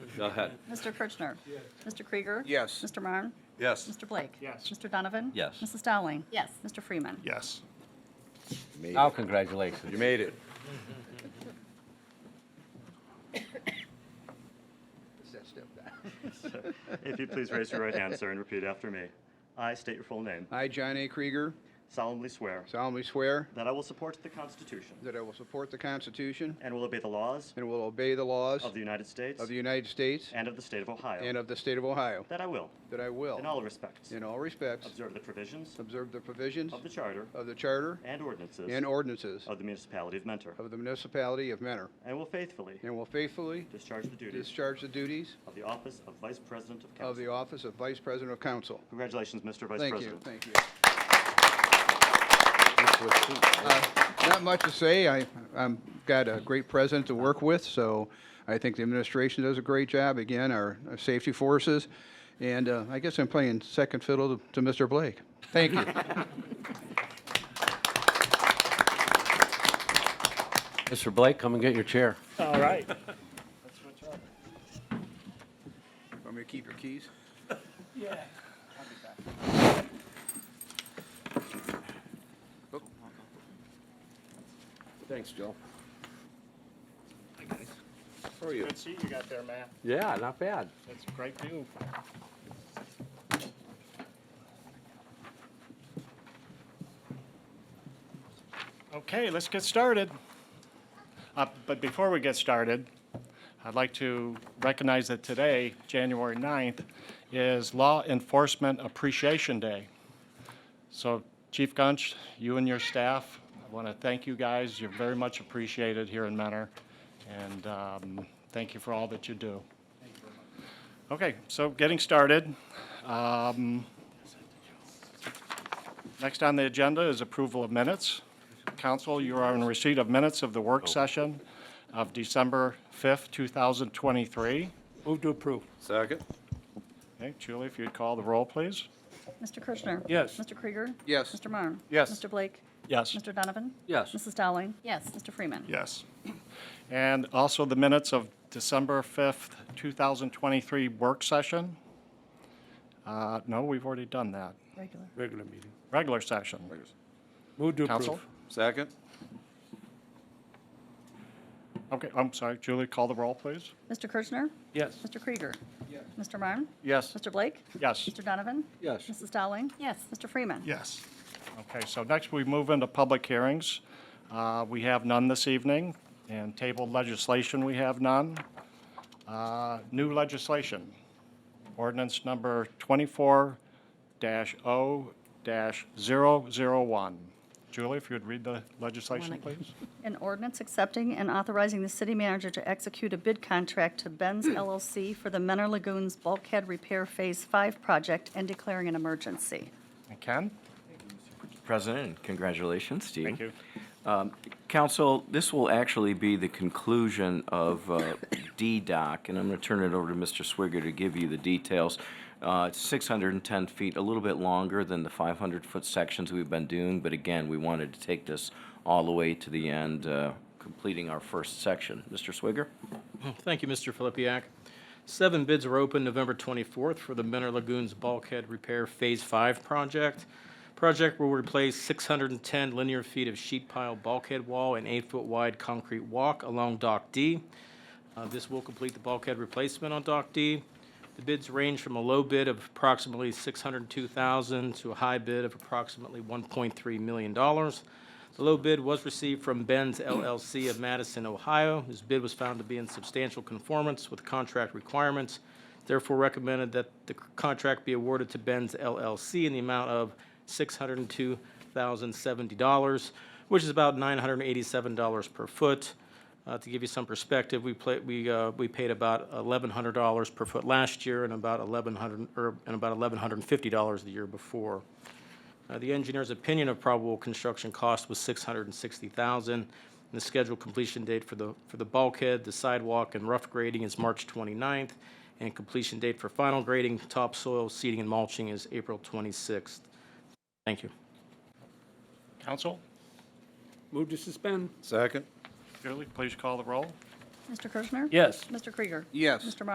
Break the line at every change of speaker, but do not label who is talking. Go ahead.
Mr. Kirchner. Mr. Krieger.
Yes.
Mr. Marne.
Yes.
Mr. Blake.
Yes.
Mr. Donovan.
Yes.
Mrs. Dowling.
Yes.
Mr. Freeman.
Yes.
Made
Now,
it.
congratulations.
You made it.
If you please raise your right hand, sir, and repeat after me. I state your full name.
I, John A. Krieger,
solemnly swear
solemnly swear
that I will support the Constitution
that I will support the Constitution
and will obey the laws
and will obey the laws
of the United States
of the United States
and of the state of Ohio.
and of the state of Ohio,
That I will,
that I will,
in all respects,
in all respects,
observe the provisions
observe the provisions
of the Charter
of the Charter
and ordinances
and ordinances
of the municipality of Mentor,
of the municipality of Mentor,
and will faithfully
and will faithfully
discharge the duties
discharge the duties
of the office of Vice President of
of the
Council.
office of Vice President of Council.
Congratulations, Mr. Vice
Thank you,
President.
thank you. Uh, Not much to say. I, I've got a great president to work with, so I think the administration does a great job. Again, our, our safety forces, and uh, I guess I'm playing second fiddle to- to Mr. Blake. Thank you.
Mr. Blake, come and get your chair.
All right.
Want me to keep your keys?
Thanks, Joe.
How are you?
Good seat you got there, Matt.
Yeah, not bad.
That's a great view. Okay, let's get started. Uh, But before we get started, I'd like to recognize that today, January 9th, is Law Enforcement Appreciation Day. So Chief Gunch, you and your staff, I want to thank you guys. You're very much appreciated here in Mentor, and um, thank you for all that you do. Okay, so getting started. um, Next on the agenda is approval of minutes. Council, you are in receipt of minutes of the
Oh.
work session of December 5th, 2023.
Move to approve.
Second?
Okay, Julie, if you'd call the roll, please.
Mr. Kirchner.
Yes.
Mr. Krieger.
Yes.
Mr. Marne.
Yes.
Mr. Blake.
Yes.
Mr. Donovan.
Yes.
Mrs. Dowling.
Yes.
Mr. Freeman.
Yes. And also the minutes of December 5th, 2023 work session. Uh, No, we've already done that.
Regular.
Regular meeting.
Regular session.
Move to
Counsel?
approve.
Second?
Okay, I'm sorry, Julie, call the roll, please.
Mr. Kirchner.
Yes.
Mr. Krieger. Mr. Marne.
Yes.
Mr. Blake.
Yes.
Mr. Donovan.
Yes.
Mrs. Dowling.
Yes.
Mr. Freeman.
Yes. Okay, so next we move into public hearings. Uh, We have none this evening, and tabled legislation, we have none. Uh, New legislation, ordinance number 24-0-001. Julie, if you would read the legislation, please.
An ordinance accepting and authorizing the city manager to execute a bid contract to Benz LLC for the Menor Lagoons Bulkhead Repair Phase 5 project and declaring an emergency.
And Ken?
President, and congratulations to you.
Thank you.
Council, this will actually be the conclusion of uh, D-Doc, and I'm going to turn it over to Mr. Swigger to give you the details. Uh, It's 610 feet, a little bit longer than the 500-foot sections we've been doing, but again, we wanted to take this all the way to the end, uh, completing our first section. Mr. Swigger?
Thank you, Mr. Filipiak. Seven bids were open November 24th for the Menor Lagoons Bulkhead Repair Phase 5 project. Project will replace 610 linear feet of sheet pile bulkhead wall and eight-foot wide concrete walk along Dock D. Uh, This will complete the bulkhead replacement on Dock D. The bids range from a low bid of approximately $602,000 to a high bid of approximately $1.3 million. The low bid was received from Benz LLC of Madison, Ohio. This bid was found to be in substantial conformance with contract requirements, therefore recommended that the c- contract be awarded to Benz LLC in the amount of $602,070, which is about $987 per foot. Uh, To give you some perspective, we play, we, uh, we paid about eleven hundred dollars per foot last year and about eleven hundred, or, and about eleven hundred and fifty dollars the year before. Uh, The engineer's opinion of probable construction cost was six hundred and sixty thousand. dollars And the scheduled completion date for the, for the bulkhead, the sidewalk, and rough grading is March 29th, and completion date for final grading, topsoil, seeding, and mulching is April twenty-sixth. Thank you.
Council,
Move to suspend.
Second?
Julie, please call the roll.
Mr. Kirchner?
Yes.
Mr. Krieger?
Yes.
Mr. Marne?